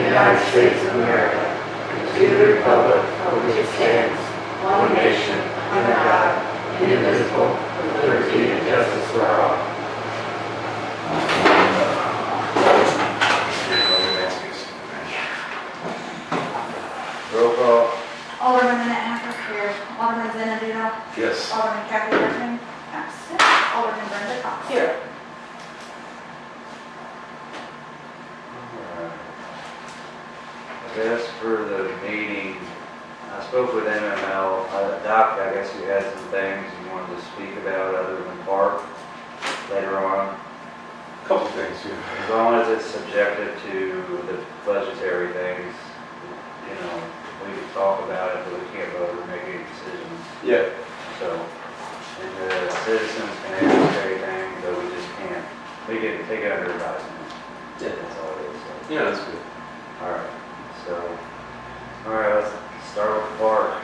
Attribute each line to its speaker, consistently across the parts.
Speaker 1: States of America and to the republic for which it stands, one nation, under God, indivisible, with liberty and justice for all.
Speaker 2: Roll call.
Speaker 3: Alderman Manahan here. Alderman Zenadino.
Speaker 2: Yes.
Speaker 3: Alderman Kathy Griffin. Absent. Alderman Brenda Cox.
Speaker 4: Here.
Speaker 2: As for the meeting, I spoke with MML, uh, Doc, I guess you had some things you wanted to speak about other than park later on.
Speaker 5: Couple things, yeah.
Speaker 2: As long as it's subjective to the budgetary things, you know, we can talk about it, but we can't vote or make any decisions.
Speaker 5: Yeah.
Speaker 2: So, and the citizens can ask everything, but we just can't, we can take it under advisement.
Speaker 5: Yeah.
Speaker 2: That's all it is. so.
Speaker 5: Yeah, that's good.
Speaker 2: All right, so, all right, let's start with Park.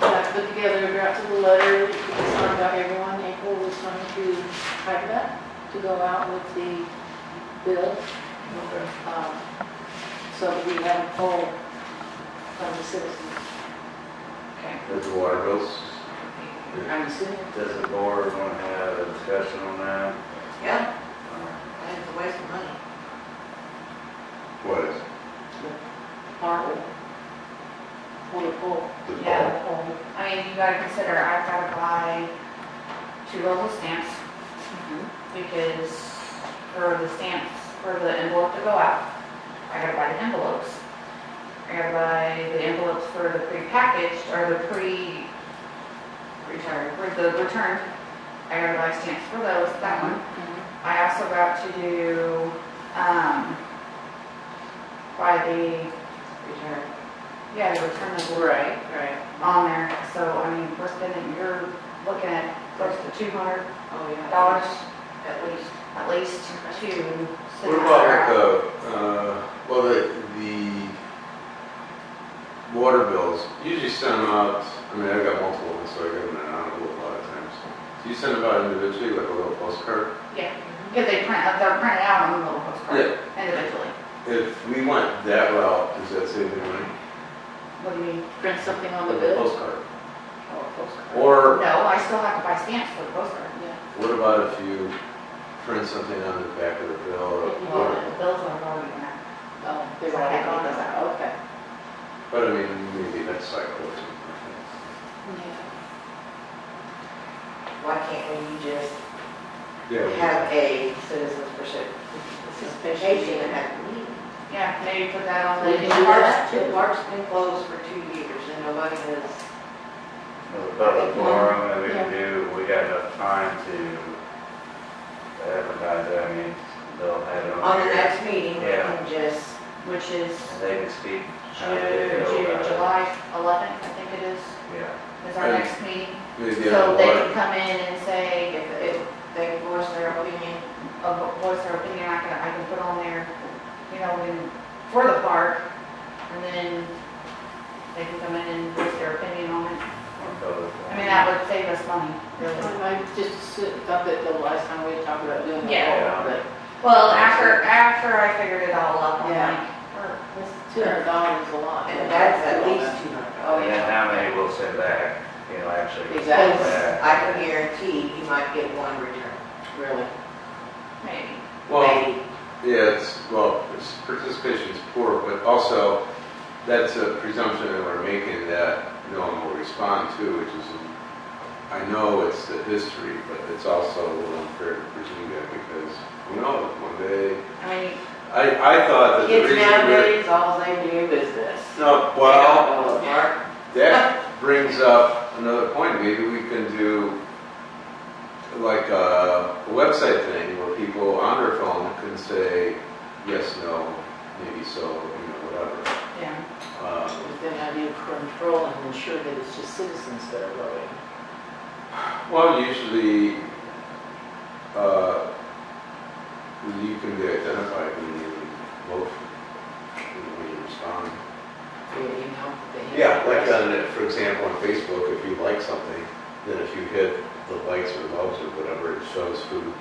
Speaker 4: I put together a draft of a letter that you can sign by everyone. April was going to type it up to go out with the bill.
Speaker 2: Okay.
Speaker 4: um, So that we have a poll from the citizens. Okay.
Speaker 5: That's the water bills.
Speaker 4: I'm assuming.
Speaker 2: Does the board want to have a discussion on that?
Speaker 4: Yeah,
Speaker 2: All right.
Speaker 4: and it's a waste of money.
Speaker 5: What is?
Speaker 4: Horrible. What a poll.
Speaker 5: The
Speaker 6: Yeah,
Speaker 5: bar?
Speaker 6: the whole- I mean, you gotta consider, I've gotta buy two local stamps
Speaker 3: Mm-hmm.
Speaker 6: because for the stamps, for the envelope to go out, I gotta buy the envelopes. I gotta buy the envelopes for the prepackaged or the pre, return, for the return. I gotta buy stamps for those, that one. I also got to do, um, buy the return, yeah, the return envelope
Speaker 4: Right, right.
Speaker 6: on there, so, I mean, we're spending, you're looking at close to two hundred
Speaker 4: Oh, yeah.
Speaker 6: dollars at least, at least to.
Speaker 5: What about with the, uh, well, the, the water bills? Usually send them out, I mean, I've got multiple ones, so I get them in an envelope a lot of times. Do you send them out individually, like a little postcard?
Speaker 6: Yeah, because they print, they're printed out on the little postcard individually.
Speaker 5: If we went that route, does that save any money?
Speaker 6: What do you mean?
Speaker 4: Print something on the
Speaker 5: Like a
Speaker 4: bill.
Speaker 5: Postcard.
Speaker 4: Oh, a postcard.
Speaker 5: Or
Speaker 6: No, I still have to buy stamps for the postcard.
Speaker 4: Yeah.
Speaker 5: what about if you print something on the back of the bill or whatever?
Speaker 6: The bills are already in there.
Speaker 4: Oh, they were like, oh, no, okay.
Speaker 5: But I mean, maybe next cycle or something.
Speaker 7: Why can't we just
Speaker 5: Yeah.
Speaker 7: have a citizens for ship vacation and have a meeting?
Speaker 6: Yeah, maybe put that on the.
Speaker 4: We can do that.
Speaker 7: The park's been closed for two years and nobody has,
Speaker 2: Well, The public forum that we can do, we got enough time to advertise, it. I mean, they'll have it on
Speaker 7: on the
Speaker 2: here.
Speaker 7: next meeting, we can just,
Speaker 6: Which is
Speaker 2: And they can speak. how they
Speaker 6: June,
Speaker 2: feel
Speaker 6: June,
Speaker 2: about it.
Speaker 6: July eleventh, I think it is,
Speaker 2: Yeah,
Speaker 6: is our
Speaker 5: And-
Speaker 6: next meeting.
Speaker 5: Maybe on
Speaker 6: So
Speaker 5: the
Speaker 6: they
Speaker 5: water.
Speaker 6: can come in and say, if, if they voice their opinion, uh, voice their opinion, I can, I can put on there, you know, in, for the park, and then they can come in and voice their opinion on it.
Speaker 2: on
Speaker 6: I
Speaker 2: public forum.
Speaker 6: mean, that would save us money, really.
Speaker 4: I just thought that the last time we talked about doing the
Speaker 6: Yeah.
Speaker 4: poll, but
Speaker 6: Well, after, after I figured it all up, I'm
Speaker 4: Yeah.
Speaker 6: like, or this,
Speaker 4: two hundred dollars is a lot.
Speaker 7: and that's at least two hundred dollars.
Speaker 4: Oh,
Speaker 2: And then
Speaker 4: yeah.
Speaker 2: how many will send back, you know, actually?
Speaker 4: Exactly.
Speaker 2: Yeah.
Speaker 7: I can guarantee you might get one return.
Speaker 4: Really.
Speaker 6: maybe.
Speaker 5: Well,
Speaker 7: Maybe.
Speaker 5: yeah, it's, well, it's- participation's poor, but also that's a presumption that we're making that no one will respond to, which is, I know it's the history, but it's also a little unfair to presume that because, who knows, one day,
Speaker 6: I mean,
Speaker 5: I, I thought that the
Speaker 7: Kids
Speaker 5: reason we're.
Speaker 7: nowadays, all they do is this.
Speaker 5: No,
Speaker 7: They
Speaker 5: well,
Speaker 7: don't go to the park.
Speaker 5: That brings up another point, maybe we can do like a website thing where people on their phone can say, yes, no, maybe so, you know, whatever.
Speaker 6: yeah,
Speaker 5: Um,
Speaker 4: Then how do you control and ensure that it's just citizens that are voting?
Speaker 5: Well, usually, uh, you can be identified when you vote, when you respond.
Speaker 4: Do you know that they-
Speaker 5: Yeah, like uh, on, for example, on Facebook, if you like something, then if you hit the likes or loves or whatever, it shows who